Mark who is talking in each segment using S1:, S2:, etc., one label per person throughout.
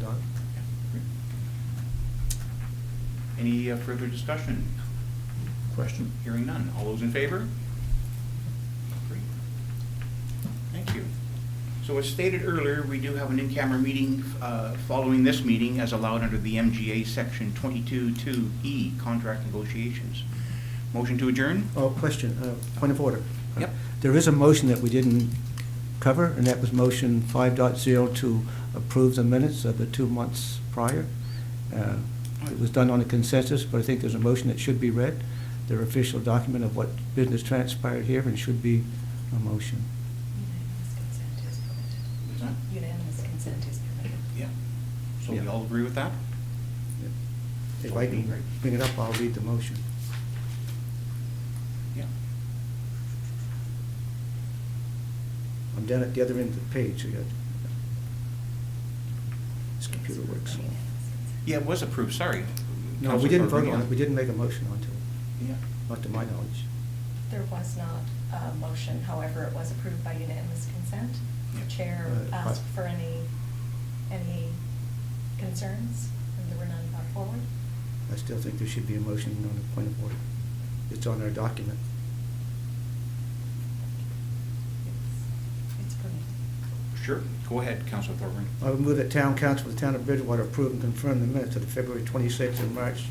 S1: done.
S2: Any uh, further discussion?
S3: Question?
S2: Hearing none. All those in favor? Great. Thank you. So as stated earlier, we do have an in-camera meeting uh, following this meeting as allowed under the MGA Section 22-2E Contract Negotiations. Motion to adjourn?
S1: Oh, question, uh, point of order.
S2: Yep.
S1: There is a motion that we didn't cover, and that was motion 5.0 to approve the minutes of the two months prior. Uh, It was done on a consensus, but I think there's a motion that should be read, their official document of what business transpired here, and should be a motion.
S4: Unanimous consent is permitted.
S2: Is that-
S4: Unanimous consent is permitted.
S2: Yeah. So
S1: Yeah.
S2: we all agree with that?
S1: If I can bring it up, I'll read the motion.
S2: Yeah.
S1: I'm down at the other end of the page, so you got, this computer works.
S4: Unanimous consent.
S2: Yeah, it was approved, sorry.
S1: No, Uh, we
S2: Counselor
S1: didn't vote
S2: Pellegrino.
S1: on it, we didn't make a motion onto it,
S2: Yeah.
S1: not to my knowledge.
S4: There was not a motion, however, it was approved by unanimous consent.
S2: Yeah.
S4: The chair
S1: Uh,
S4: asked
S1: I-
S4: for any, any concerns, and there were none brought forward.
S1: I still think there should be a motion on the point of order. It's on our document.
S4: It's- It's permitted.
S2: Sure, go ahead, Counselor Thorburn.
S1: I would move that town council of the town of Bridgewater approve and confirm the minutes of the February 26th and March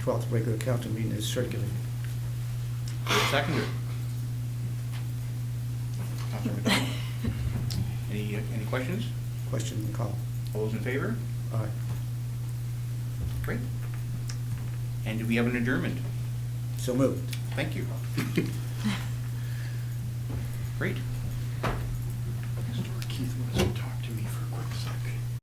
S1: 12th regular council meeting as circulated.
S2: Seconder. Counselor McDonald? Any, uh, any questions?
S1: Question and call.
S2: All those in favor?
S1: Aye.
S2: Great. And do we have an adjournment?
S1: So moved.
S2: Thank you. Great. Mr. Keith West.